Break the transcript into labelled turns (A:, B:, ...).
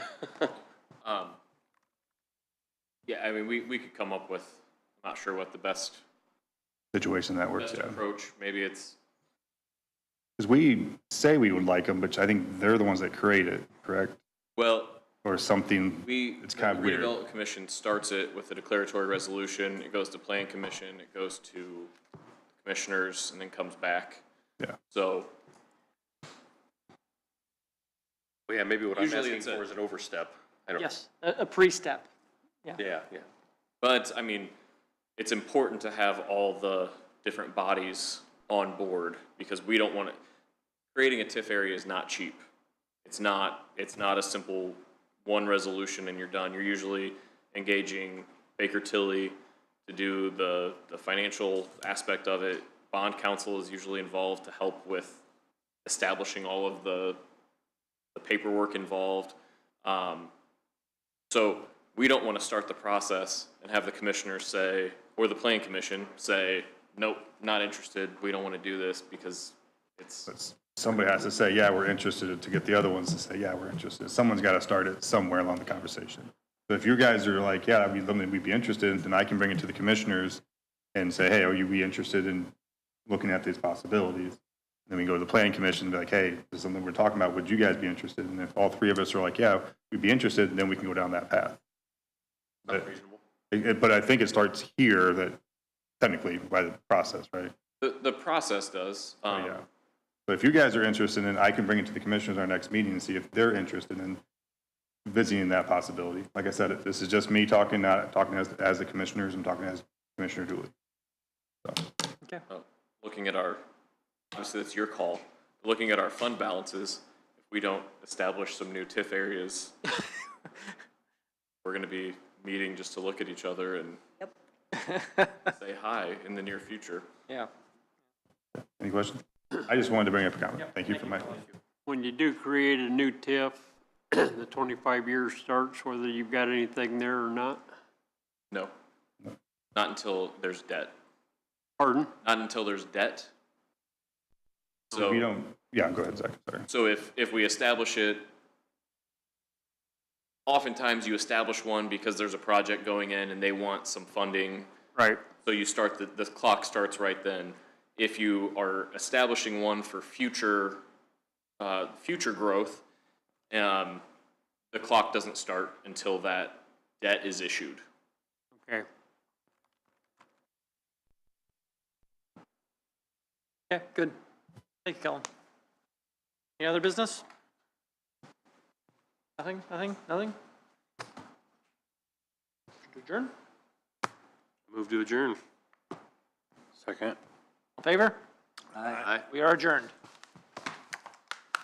A: Um, yeah, I mean, we, we could come up with, I'm not sure what the best,
B: situation that works,
A: best
B: yeah.
A: approach, maybe it's,
B: Because we say we would like them, but I think they're the ones that create it, correct?
A: well,
B: Or something,
A: we.
B: It's kinda
A: the
B: weird.
A: Redevelopment Commission starts it with a declaratory resolution, it goes to Plan Commission, it goes to commissioners, and then comes back.
B: Yeah.
A: So,
C: Well, yeah, maybe what I'm
A: Usually
C: asking
A: it's a-
C: for is an overstep. I don't,
D: Yes, a, a pre-step.
C: yeah, yeah.
A: but, I mean, it's important to have all the different bodies on board, because we don't want to, creating a TIF area is not cheap. It's not, it's not a simple one resolution and you're done. You're usually engaging Baker Tilly to do the, the financial aspect of it. Bond counsel is usually involved to help with establishing all of the, the paperwork involved. Um, so we don't want to start the process and have the commissioner say, or the planning commission say, nope, not interested, we don't want to do this because it's.
B: but somebody has to say, yeah, we're interested, to get the other ones to say, yeah, we're interested. Someone's got to start it somewhere along the conversation. But if you guys are like, yeah, that'd be something we'd be interested in, then I can bring it to the commissioners and say, hey, are you be interested in looking at these possibilities? Then we go to the planning commission and be like, hey, this is something we're talking about, would you guys be interested? And if all three of us are like, yeah, we'd be interested, then we can go down that path. But- It- it- But I think it starts here that technically by the process, right?
A: The, the process does. Um,
B: Oh, Yeah. But if you guys are interested, then I can bring it to the commissioners our next meeting and see if they're interested in visiting that possibility. Like I said, this is just me talking, not talking as, as the commissioners, I'm talking as Commissioner Dooley.
A: uh, Looking at our, obviously that's your call, looking at our fund balances, if we don't establish some new TIF areas, we're going to be meeting just to look at each other and say hi in the near future.
D: Yeah.
B: Any questions? I just wanted to bring up a comment. Thank you for my,
E: When you do create a new TIF, the twenty-five years starts, whether you've got anything there or not.
A: No. Not until there's debt.
E: Pardon?
A: Not until there's debt.
B: if you
A: So,
B: don't, yeah, go ahead, Zach, sorry.
A: so if, if we establish it, oftentimes you establish one because there's a project going in and they want some funding
E: Right.
A: So you start, the, the clock starts right then. If you are establishing one for future, uh, future growth, um, the clock doesn't start until that debt is issued.
E: Okay.
D: Yeah, good. Thank you, Colin. Any other business? Nothing, nothing, nothing? Motion to Adjourn?
C: Move to adjourn.
D: All in Favor?
C: Aye.
D: We are adjourned.